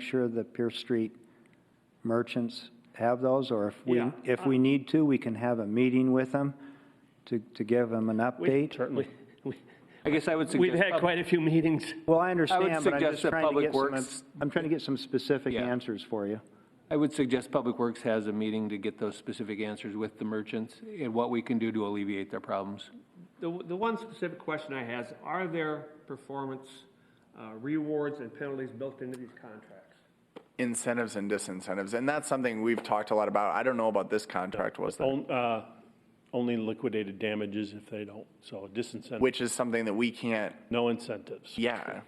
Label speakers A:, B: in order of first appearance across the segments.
A: sure the Pierce Street merchants have those, or if we,
B: Yeah.
A: if we need to, we can have a meeting with them to, to give them an update?
B: Certainly.
C: I guess I would suggest.
B: We've had quite a few meetings.
A: Well, I understand, but I'm
C: suggest
A: just
C: that
A: trying to
C: Public
A: get some,
C: Works-
A: I'm trying to get some specific
C: Yeah.
A: answers for you.
C: I would suggest Public Works has a meeting to get those specific answers with the merchants and what we can do to alleviate their problems.
D: The, the one specific question I have is, are there performance uh, rewards and penalties built into these contracts?
E: incentives and disincentives, and that's something we've talked a lot about. I don't know about this contract, was there?
B: On- uh, Only liquidated damages if they don't, so disincentive,
E: Which is something that we can't,
B: no incentives.
E: yeah.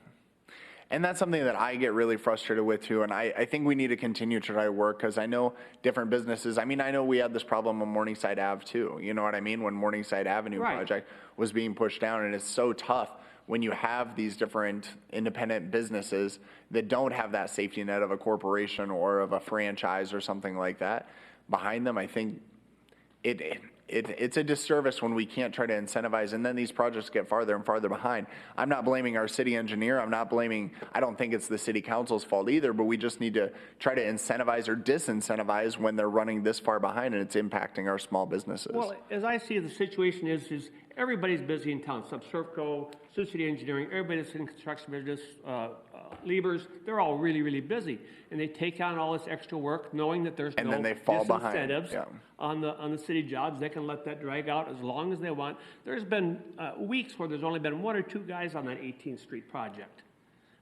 E: And that's something that I get really frustrated with too, and I, I think we need to continue to try to work, because I know different businesses, I mean, I know we had this problem on Morningside Ave too, you know what I mean? When Morningside Avenue
D: Right.
E: project was being pushed down, and it's so tough when you have these different independent businesses that don't have that safety net of a corporation or of a franchise or something like that behind them, I think it, it, it's a disservice when we can't try to incentivize, and then these projects get farther and farther behind. I'm not blaming our city engineer, I'm not blaming, I don't think it's the city council's fault either, but we just need to try to incentivize or disincentivize when they're running this far behind and it's impacting our small businesses.
D: Well, as I see it, the situation is, is everybody's busy in town, Subsurfco, Sioux City Engineering, everybody that's in construction business, uh, uh, Liebers, they're all really, really busy. And they take on all this extra work, knowing that there's no
E: And then they fall behind,
D: disincentives
E: yeah.
D: on the, on the city jobs, they can let that drag out as long as they want. There's been uh, weeks where there's only been one or two guys on that 18th Street project.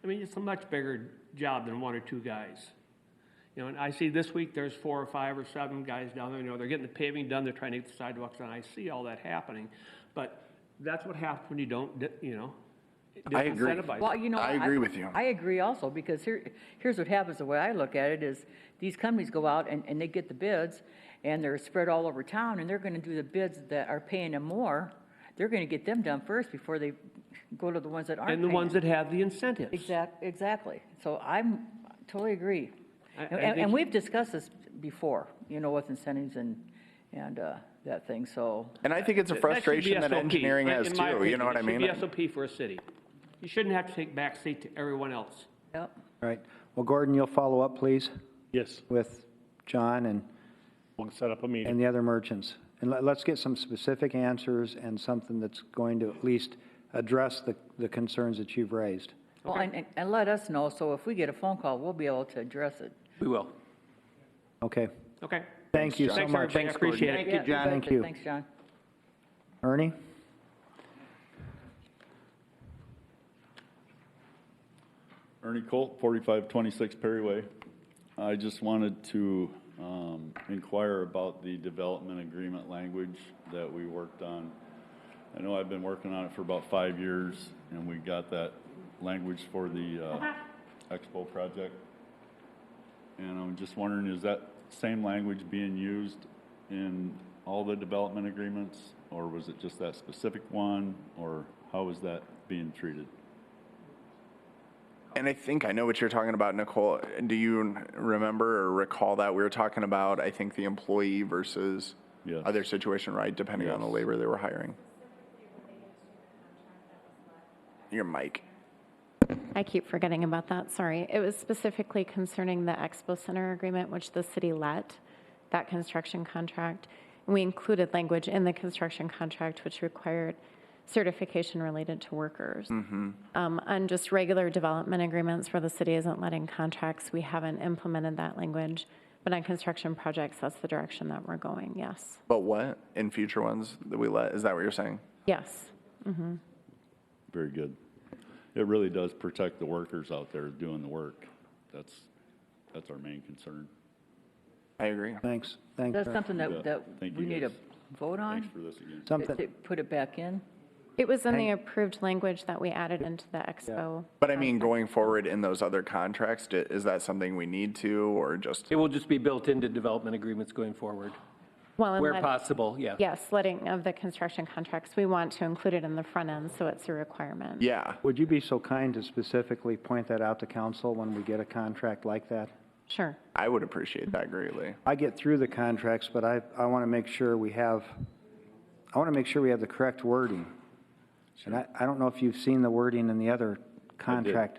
D: I mean, it's a much bigger job than one or two guys. You know, and I see this week there's four or five or seven guys down there, you know, they're getting the paving done, they're trying to get the sidewalks done. I see all that happening. But that's what happens when you don't, di- you know.
E: I agree.
D: disincentivize.
F: Well, you know.
E: I agree with you.
F: I agree also, because here, here's what happens, the way I look at it is, these companies go out and, and they get the bids, and they're spread all over town, and they're gonna do the bids that are paying them more, they're gonna get them done first before they go to the ones that aren't
D: And the
F: paying
D: ones
F: them.
D: that have the incentives.
F: Exact, exactly, so I'm, totally agree.
D: I- I
F: And, and-
D: think-
F: and we've discussed this before, you know, with incentives and, and, uh, that thing, so,
E: And I think it's a
D: That- that should be
E: frustration that
D: SOP,
E: engineering
D: in-
E: has
D: in my
E: too, you
D: opinion.
E: know what I mean?
D: It should be SOP for a city. You shouldn't have to take backseat to everyone else.
F: yep.
A: All right. Well, Gordon, you'll follow up, please,
B: Yes,
A: with John and,
B: we'll set up a meeting.
A: and the other merchants. And let, let's get some specific answers and something that's going to at least address the, the concerns that you've raised.
F: Well, and, and- and let us know, so if we get a phone call, we'll be able to address it.
C: We will.
A: Okay.
D: Okay?
A: Thank you so
D: Thanks,
A: much.
D: everybody. I appreciate it.
F: Thank you, John.
A: Thank you.
F: Thanks, John.
A: Ernie?
G: Ernie Colt, 4526 Perry Way. I just wanted to um, inquire about the development agreement language that we worked on. I know I've been working on it for about five years, and we got that language for the uh, Expo project. And I'm just wondering, is that same language being used in all the development agreements? Or was it just that specific one? Or how is that being treated?
E: And I think I know what you're talking about, Nicole. Do you remember or recall that? We were talking about, I think, the employee versus
G: Yes.
E: other situation, right? Depending on the
G: Yes.
E: labor they were hiring. Your mic.
H: I keep forgetting about that, sorry. It was specifically concerning the Expo Center agreement, which the city let, that construction contract. We included language in the construction contract which required certification related to workers. Um, On just regular development agreements where the city isn't letting contracts, we haven't implemented that language. But on construction projects, that's the direction that we're going, yes.
E: But what in future ones that we let? Is that what you're saying?
H: Yes.
G: Very good. It really does protect the workers out there doing the work. That's, that's our main concern.
E: I agree.
A: Thanks. Thanks.
F: That's something
G: Yeah.
F: that, that
G: Thank
F: we
G: you,
F: need to
G: guys.
F: vote
G: Thanks
F: on,
G: for this again.
A: Something.
F: to put it back in.
H: It was in the approved language that we added into the Expo.
E: But I mean, going forward in those other contracts, d- is that something we need to, or just?
C: It will just be built into development agreements going forward,
H: Well, and
C: where
H: let-
C: possible, yeah.
H: Yes, letting of the construction contracts, we want to include it in the front end, so it's a requirement.
E: Yeah.
A: Would you be so kind to specifically point that out to council when we get a contract like that?
H: Sure.
E: I would appreciate that greatly.
A: I get through the contracts, but I, I want to make sure we have, I want to make sure we have the correct wording. And I, I don't know if you've seen the wording in the other contract,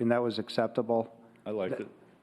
A: and that was acceptable.
G: I liked it.